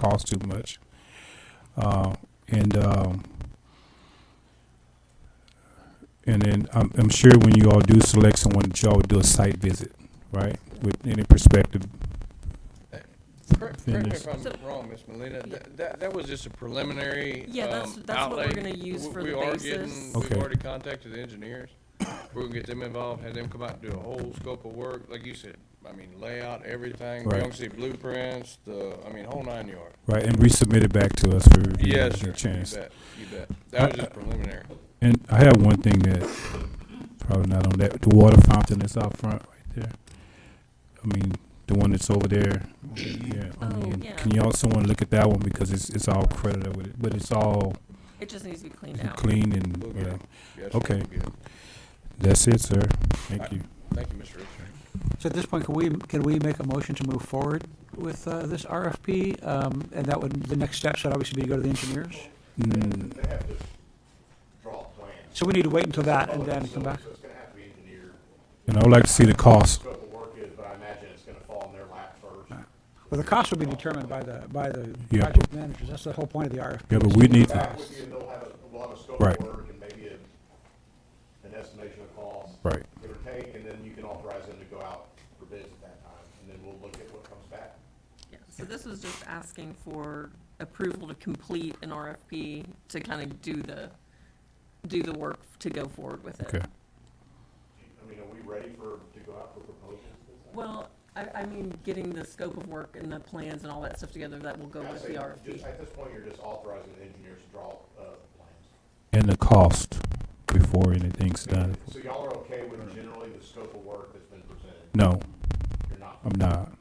cost too much. Uh, and um, and then I'm, I'm sure when you all do select someone, that y'all would do a site visit, right? With any perspective. Correct correct me if So- I'm wrong, Ms. Molina, Yeah. that, that, that was just a preliminary, Yeah, that's- um, that's what we're outlay. gonna use We- for we the are basis. getting- We've Okay. already contacted the engineers. We're gonna get them involved, have them come out and do a whole scope of work, like you said, I mean, layout, everything. We're Right. gonna see blueprints, the, I mean, whole nine yards. Right, and resubmit it back to us for review. Yes, and sir, you Chance. bet, you bet. That was just preliminary. And I have one thing that probably not on that. The water fountain that's out front right there. I mean, the one that's over there. Yeah. I Oh, mean, yeah. Can y'all someone look at that one because it's it's all credited with it, but it's all It just needs to be cleaned out. clean and We'll get yeah. it. Yes, sir, Okay. we'll get it. That's it, sir. Thank Alright. you. Thank you, Mr. Richardson. So at this point, can we, can we make a motion to move forward with uh, this RFP? Um, And that would, the next step should obviously be to go to the engineers. Mm, They have to draw a plan. So we need to wait until that and then come back. So it's gonna have to be engineered, and I would like to see the cost. scope of work is, but I imagine it's gonna fall in their lap first. Well, the cost would be determined by the, by the Yeah. project managers. That's the whole point of the RFP. Yeah, but we need Back to. with you, and they'll have a lot of scope Right. of work and maybe a- an estimation of cost. Right. Give or take, and then you can authorize them to go out for bids at that time, and then we'll look at what comes back. Yeah, So this was just asking for approval to complete an RFP to kind of do the, do the work to go forward with it. Okay. I mean, are we ready for, to go out for proposals? Well, I, I mean, getting the scope of work and the plans and all that stuff together, that will go I'd with say the RFP. just- At this point, you're just authorizing the engineers to draw, uh, plans. And the cost before anything's done. So y'all are okay with generally the scope of work that's been presented? No, You're not? I'm not.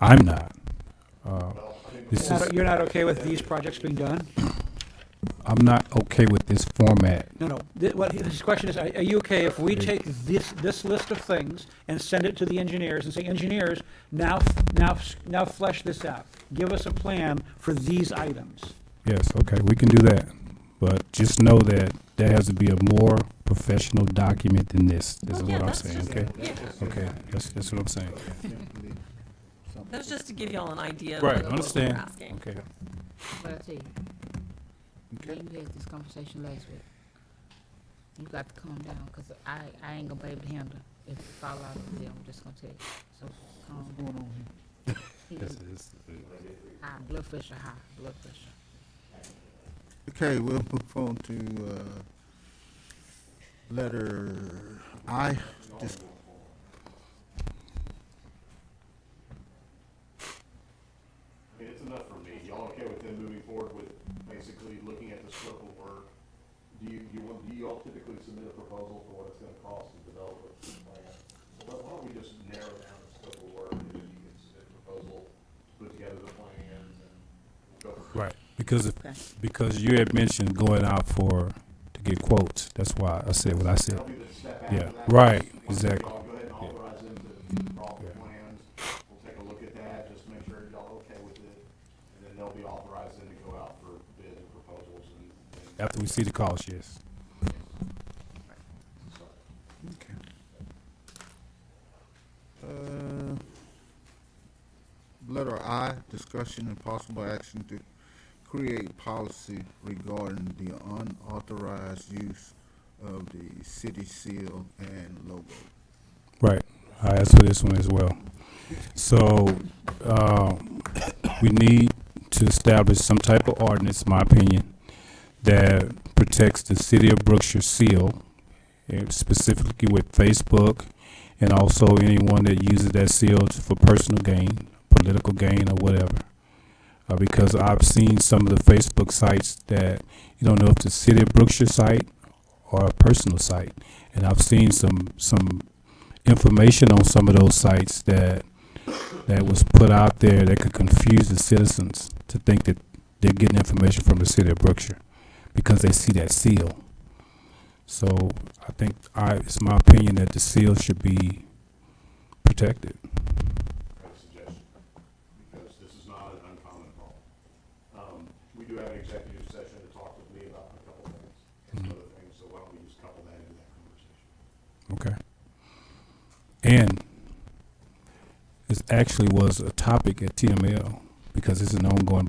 I'm not. Well, I think This Not- is You're not okay with these projects being done? I'm not okay with this format. No, no. Th- What his question is, are are you okay if we take this, this list of things and send it to the engineers and say, engineers, now, f- now, f- now flesh this out. Give us a plan for these items. Yes, okay, we can do that. But just know that there has to be a more professional document than this. This Oh, is yeah, what I'm that's saying, just- okay? yeah. Okay, that's, that's what I'm saying. That's just to give y'all an idea of Right, what what we're understand. asking. Okay. But I tell you, me and you had this conversation last week. You got to calm down, cause I, I ain't gonna be able to handle it. If it fall out of there, I'm just gonna tell you, so calm down. High, blood pressure high, blood pressure. Okay, we'll move on to, uh, letter I, Dis- I mean, it's enough for me. Y'all okay with them moving forward with basically looking at the scope of work? Do you, you want, do you all typically submit a proposal for what it's gonna cost to develop a plan? So why- why don't we just narrow down the scope of work and then you can submit a proposal, put together the plans and go for Right, because, if- Okay. because you had mentioned going out for, to get quotes. That's why I said what I said. That'll be the step Yeah, after that. right, Once exactly. y'all Go ahead and Yeah. authorize them to draw the Yeah. plans. We'll take a look at that, just make sure y'all okay with it. And then they'll be authorized then to go out for bids and proposals and, and After we see the cost, yes. start. uh, letter I, discussion and possible action to create policy regarding the unauthorized use of the city seal and logo. Right. I asked for this one as well. So, uh, we need to establish some type of ordinance, in my opinion, that protects the city of Brookshire seal, eh, specifically with Facebook and also anyone that uses that seal to- for personal gain, political gain or whatever. Uh, because I've seen some of the Facebook sites that you don't know if the city of Brookshire site or a personal site. And I've seen some, some information on some of those sites that that was put out there that could confuse the citizens to think that they're getting information from the city of Brookshire because they see that seal. So I think I it's my opinion that the seal should be protected. kind of suggestion, because this is not an uncommon problem. Um, we do have an executive session to talk with me about a couple of things, and some other things, so why don't we just couple that into that conversation? Okay. And this actually was a topic at TML because it's an ongoing